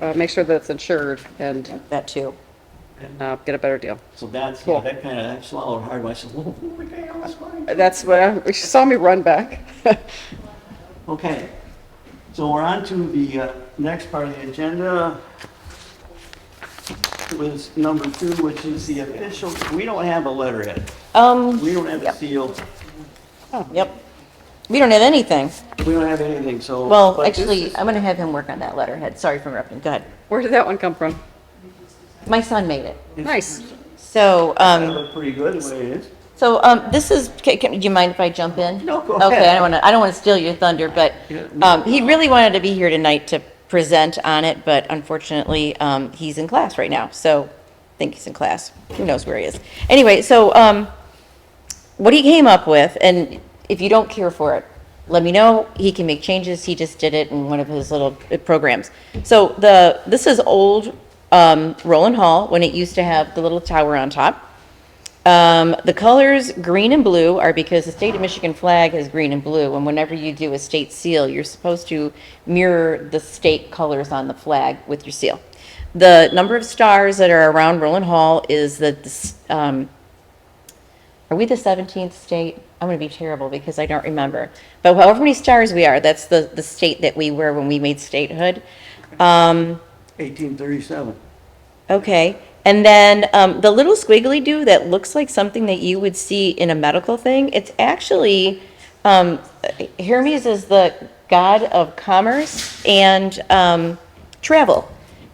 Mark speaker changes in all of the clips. Speaker 1: uh, make sure that it's insured and
Speaker 2: that too.
Speaker 1: uh, get a better deal.
Speaker 3: So that's,
Speaker 1: Cool.
Speaker 3: yeah, that kind of, I swallowed hard, I said, whoa, we pay all this money?
Speaker 1: That's what, I- she saw me run back.
Speaker 3: Okay, so we're on to the uh, next part of the agenda. Was number two, which is the official, we don't have a letterhead.
Speaker 2: Um,
Speaker 3: We don't have a
Speaker 2: Yep.
Speaker 3: seal.
Speaker 2: yep. We don't have anything.
Speaker 3: We don't have anything, so.
Speaker 2: Well,
Speaker 3: but this
Speaker 2: actually,
Speaker 3: is-
Speaker 1: um,
Speaker 2: I'm gonna have him work on that letterhead. Sorry for interrupting. Go ahead.
Speaker 1: Where did that one come from?
Speaker 2: My son made it.
Speaker 1: Nice.
Speaker 2: So, um,
Speaker 3: That's pretty good the way it is.
Speaker 2: So um, this is, ca- can- do you mind if I jump in?
Speaker 3: No, go
Speaker 2: Okay, I
Speaker 3: ahead.
Speaker 2: don't want to, I don't want to steal your thunder, but
Speaker 3: Yeah,
Speaker 2: um, he really wanted to be here tonight to present on it, but unfortunately, um, he's in class right now, so I think he's in class. Who knows where he is? Anyway, so um, what he came up with, and if you don't care for it, let me know. He can make changes. He just did it in one of his little uh, programs. So the, this is old um, Roland Hall, when it used to have the little tower on top. Um, the colors green and blue are because the state of Michigan flag is green and blue, and whenever you do a state seal, you're supposed to mirror the state colors on the flag with your seal. The number of stars that are around Roland Hall is that, this, um, are we the 17th state? I'm going to be terrible because I don't remember. But however many stars we are, that's the, the state that we were when we made statehood. Um,
Speaker 3: 1837.
Speaker 2: Okay, and then um, the little squiggly do that looks like something that you would see in a medical thing, it's actually, um, Hermes is the god of commerce and um, travel.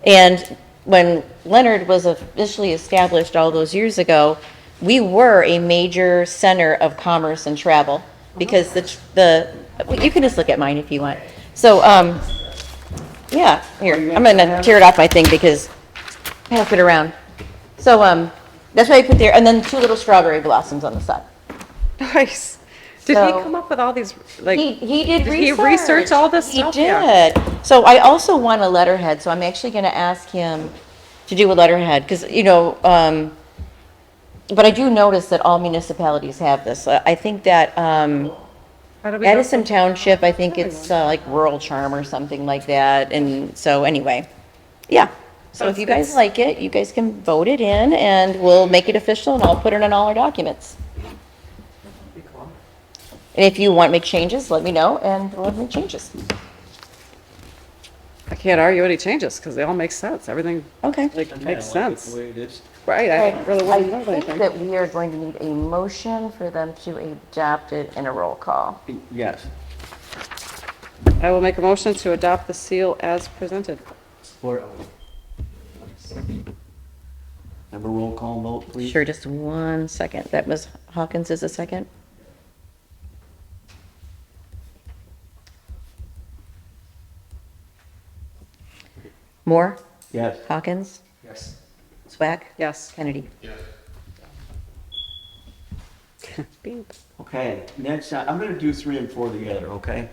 Speaker 2: And when Leonard was officially established all those years ago, we were a major center of commerce and travel because the, tr- the, you can just look at mine if you want. So, um, yeah, here, I'm gonna tear it off my thing because pass it around. So, um, that's what I put there, and then two little strawberry blossoms on the side.
Speaker 1: Nice. Did he
Speaker 2: So-
Speaker 1: come up with all these,
Speaker 2: He,
Speaker 1: like,
Speaker 2: he did
Speaker 1: Did
Speaker 2: research.
Speaker 1: he research all this stuff?
Speaker 2: He
Speaker 1: Yeah.
Speaker 2: did. So I also want a letterhead, so I'm actually gonna ask him to do a letterhead, because, you know, um, but I do notice that all municipalities have this. I I think that, um,
Speaker 1: how do we? know?
Speaker 2: Addison Township, I think it's uh, like Rural Charm or something like that, and so anyway, yeah. So if you guys like it, you guys can vote it in, and we'll make it official, and I'll put it in all our documents. And if you want to make changes, let me know, and we'll make changes.
Speaker 1: I can't argue any changes because they all make sense. Everything,
Speaker 2: Okay.
Speaker 1: like,
Speaker 3: Kinda like it
Speaker 1: makes sense.
Speaker 3: The way it is.
Speaker 1: Right, I really wouldn't know
Speaker 2: I think
Speaker 1: anything.
Speaker 2: that we are going to need a motion for them to adopt it in a roll call.
Speaker 3: Yes,
Speaker 1: I will make a motion to adopt the seal as presented.
Speaker 3: for. Have a roll call vote, please.
Speaker 2: Sure, just one second. That was Hawkins is a second? Moore,
Speaker 3: Yes.
Speaker 2: Hawkins,
Speaker 4: Yes.
Speaker 2: Swack,
Speaker 1: Yes.
Speaker 2: Kennedy.
Speaker 1: Beep.
Speaker 3: Okay, next, uh, I'm gonna do three and four together, okay?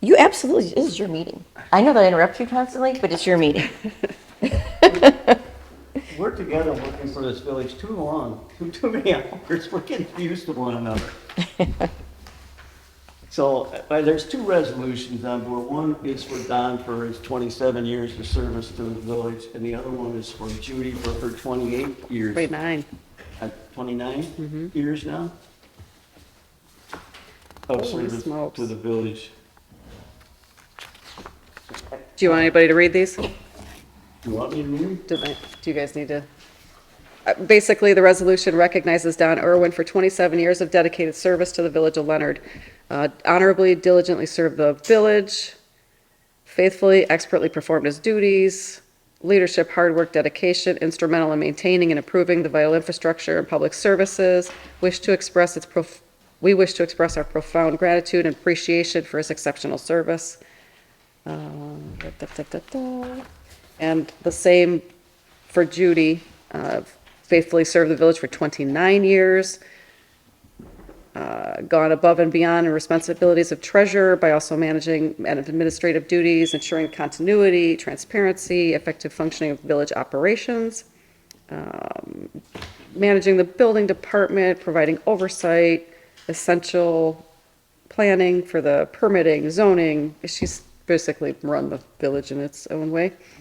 Speaker 2: You absolutely, this is your meeting. I know that I interrupt you constantly, but it's your meeting.
Speaker 3: We're together working for this village too long, too too many hours, we're getting used to one another. So, uh, there's two resolutions on board, one is for Don for his 27 years of service to the village, and the other one is for Judy for her 28 years.
Speaker 1: Wait, Mm-hmm. nine.
Speaker 3: uh, 29 years now? Of
Speaker 1: Holy
Speaker 3: service
Speaker 1: smokes.
Speaker 3: to the village.
Speaker 1: Do you want anybody to read these?
Speaker 3: You want me to read?
Speaker 1: Do they- do you guys need to? Uh, Basically, the resolution recognizes Don Irwin for 27 years of dedicated service to the village of Leonard. Uh, Honorably, diligently served the village, faithfully, expertly performed his duties, leadership, hard work, dedication, instrumental in maintaining and improving the vital infrastructure and public services. Wish to express its, prof- we wish to express our profound gratitude and appreciation for his exceptional service. Um, da, da, da, da, da. And the same for Judy, uh, faithfully served the village for 29 years, uh, gone above and beyond in responsibilities of treasurer by also managing and administrative duties, ensuring continuity, transparency, effective functioning of village operations, um, managing the building department, providing oversight, essential planning for the permitting, zoning. She's basically run the village in its own way.